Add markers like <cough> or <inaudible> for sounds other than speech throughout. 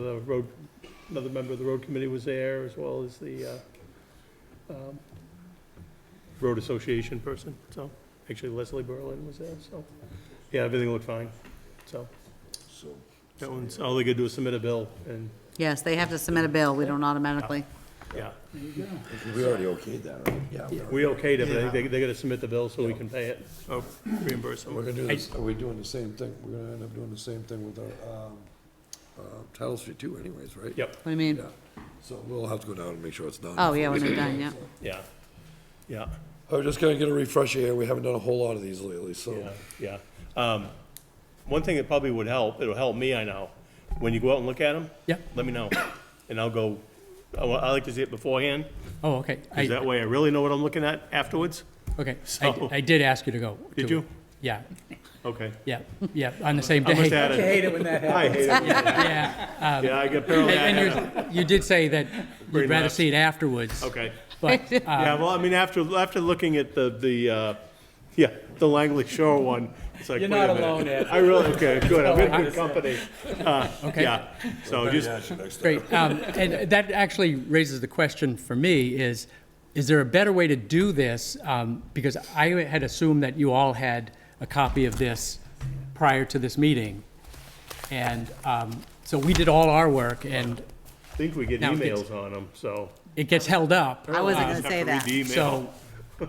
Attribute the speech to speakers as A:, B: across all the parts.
A: The road, another member of the road committee was there, as well as the uh, um, road association person, so, actually Leslie Berlin was there, so, yeah, everything looked fine, so.
B: So,
A: That one's, all they could do is submit a bill, and,
C: Yes, they have to submit a bill, we don't automatically.
A: yeah,
B: we already okayed that, right? Yeah. we already-
A: we okayed it, but they, they gotta submit the bill so we can pay it, or Oh, reimburse them.
B: We're gonna do this, are we doing the same thing? We're gonna end up doing the same thing with our, um, uh, Title Street too anyways, right?
A: Yep,
C: What do you mean?
B: Yeah, so we'll have to go down and make sure it's done.
C: Oh, yeah, when they're done, yeah.
A: yeah, yeah.
B: I was Oh, just gonna get a refresher here, we haven't done a whole lot of these lately, so.
A: Yeah, yeah. Um, One thing that probably would help, it'll help me, I know, when you go out and look at them.
D: Yeah.
A: Let me know, and I'll go, I wa- I like to see it beforehand,
D: Oh, okay. I-
A: because that way I really know what I'm looking at afterwards. <laughs>
D: Okay,
A: So-
D: I, I did ask you to go.
A: Did
D: to it.
A: you?
D: Yeah,
A: Okay.
D: yeah, yeah, on the same
A: I
D: day.
A: must have had it.
E: it when that
A: I hate it. <laughs>
D: <laughs> Yeah,
A: Yeah, I get parallel.
D: and you, you did say that
A: Brain
D: you'd rather
A: lapse.
D: see it afterwards.
A: Okay.
D: But, uh,
A: Yeah, well, I mean, after, after looking at the, the, uh, yeah, the Langley Shore one, it's like, wait
E: You're
A: a
E: not
A: minute.
E: alone, Ed.
A: I really, okay, good, I'm in
E: I- <laughs>
A: good company. Uh,
D: Okay.
A: Yeah, so just,
D: great. Um, and that actually raises the question for me is, is there a better way to do this? Um, because I had assumed that you all had a copy of this prior to this meeting. And, um, so we did all our work and
A: I think we get
D: Now it gets-
A: emails on them, so.
D: it gets held up.
C: I wasn't
A: Just have
C: gonna say
A: to read
C: that.
A: the email.
D: So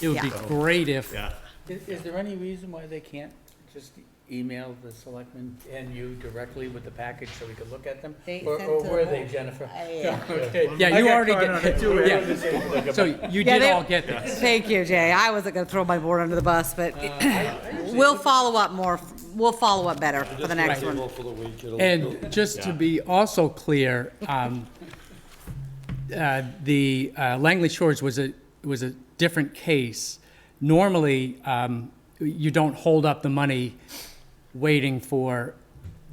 D: it would be
C: Yeah.
D: great if
A: Yeah,
E: Is, is there any reason why they can't just email the selectmen and you directly with the package so we could look at them?
C: They
E: Or,
C: sent
E: or
C: to
E: were
C: the-
E: they, Jennifer?
C: Yeah,
E: Okay.
D: Yeah,
E: I
D: you
E: got
D: already
E: caught on it
D: get,
E: too, Ed.
D: yeah. So you
C: Yeah,
D: did
C: they-
D: all get this.
C: <laughs> Thank you, Jay. I wasn't gonna throw my board under the bus, but <clears throat> we'll follow up more, we'll follow up better for the next one.
B: For the week, it'll-
D: And just to be also clear, um, uh, the uh, Langley Shores was a, was a different case. Normally, um, you don't hold up the money waiting for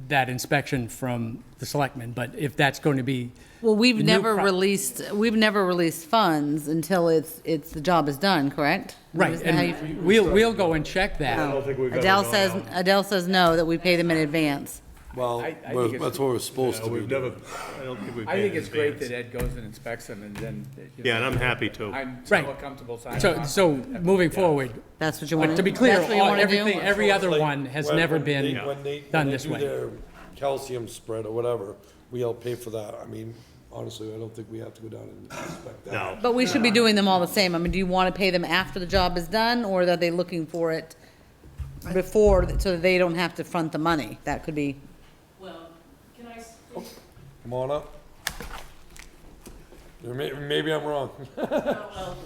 D: that inspection from the selectmen, but if that's going to be,
C: Well, we've
D: New
C: never
D: pro-
C: released, we've never released funds until it's, it's, the job is done, correct?
D: right,
C: Isn't that how you-
D: and we'll, we'll go and check
A: I
D: that.
A: don't think we've ever
C: Adele
A: gone
C: says,
A: out.
C: Adele says no, that we pay them in advance.
B: Well,
E: I- I think
B: we're-
E: it's-
B: that's what we're supposed
A: No,
B: to be
A: we've never,
B: doing.
A: I don't think we've.
E: I think
A: been
E: it's great that
A: advanced.
E: Ed goes and inspects them and then, you know,
A: Yeah, and I'm happy to.
E: I'm
D: Right.
E: more comfortable signing
D: So,
E: off.
D: so moving forward,
C: That's what you want.
D: but to be clear,
C: That's what you
D: all-
C: want to
D: everything,
C: do?
D: every other
B: Like,
D: one has
B: when-
D: never
B: when they-
D: been
B: when they-
D: done
B: when they
D: this
B: do
D: way.
B: their Calcium spread or whatever, we all pay for that. I mean, honestly, I don't think we have to go down and inspect that.
A: No,
C: But we should be doing them all the same. I mean, do you want to pay them after the job is done, or are they looking for it before, so that they don't have to front the money? That could be,
F: Well, can I, s-
B: Come on up. Or may- Maybe I'm wrong.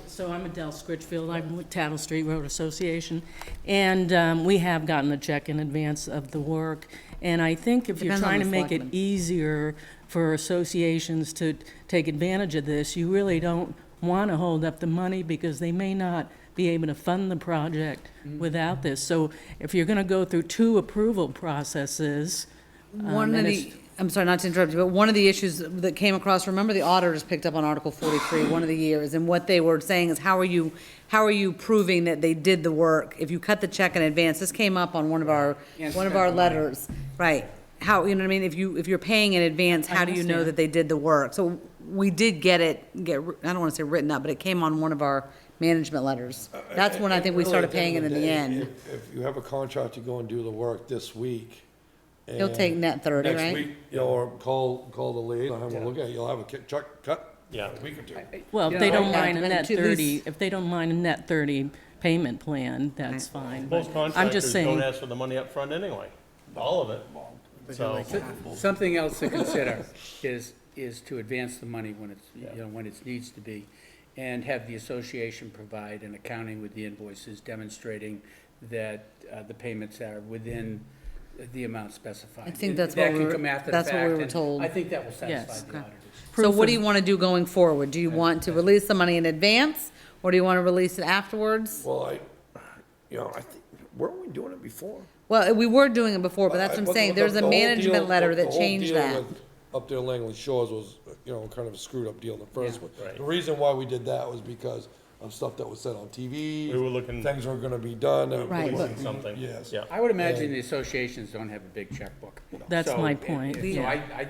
F: so I'm Adele Scritchfield, I'm with Tattle Street Road Association, and um, we have gotten a check in advance of the work, and I think if you're
C: Depends on
F: trying
C: the
F: to make it
C: selectmen.
F: easier for associations to take advantage of this, you really don't want to hold up the money because they may not be able to fund the project
C: Mm-hmm.
F: without this. So if you're going to go through two approval processes,
C: one of
F: and
C: the,
F: it's-
C: Um, I'm sorry, not to interrupt you, but one of the issues that came across, remember the auditors picked up on Article forty-three, one of the years, and what they were saying is, how are you, how are you proving that they did the work? If you cut the check in advance, this came up on one of our,
E: Can't
C: one of
E: spend
C: our
E: the money.
C: letters, right? How, you know what I mean? If you, if you're paying in advance, how do you know
F: understand.
C: that they did the work? So we did get it, get, I don't wanna say written up, but it came on one of our management letters.
B: Uh,
C: That's when I think we
B: Really,
C: started
B: at the
C: paying it in the
B: day,
C: end.
B: if- If you have a contract to go and do the work this week.
C: You'll take
B: and
C: net 30,
B: next
C: right?
B: week, you know, Or call, call the lead, I'll have a look at it, you'll have a ki- chuck, cut.
A: Yeah.
B: A week or two.
F: well, if they
C: know,
F: don't
C: like,
F: mind a
C: and
F: net
C: to at
F: 30,
C: least-
F: if they don't mind a net 30 payment plan, that's fine. but
A: most
F: I'm just
A: contractors
F: saying.
A: don't ask for the money up front anyway, all of it. So,
E: Something else to consider is, is to advance the money when it's, you know, when it needs to be, and have the association provide an accounting with the invoices demonstrating that uh, the payments are within the amount specified.
C: I think that's
E: That
C: what we
E: can
C: were-
E: come after the
C: that's what we
E: fact,
C: were
E: and
C: told.
E: I think that will
F: Yes.
E: satisfy the
C: Okay.
E: auditors.
C: So
F: proof
C: what do
F: of-
C: you want to do going forward? Do you want to release the money in advance, or do you want to release it afterwards?
B: Well, I, you know, I think, weren't we doing it before?
C: Well, we were doing it before, but that's what I'm
B: But
C: saying,
B: the-
C: there's
B: the
C: a
B: whole deal-
C: management letter
B: the
C: that
B: whole
C: changed
B: deal
C: that.
B: with Up there in Langley Shores was, you know, kind of a screwed up deal in the first one. The reason why we did that was because of stuff that was said on TV.
A: We were looking-
B: Things were gonna be done. and-
C: Right.
A: policing something.
B: Yes.
A: Yeah.
E: I would imagine the associations don't have a big checkbook.
F: That's
E: So-
F: my point,
E: So
F: yeah.
E: I, I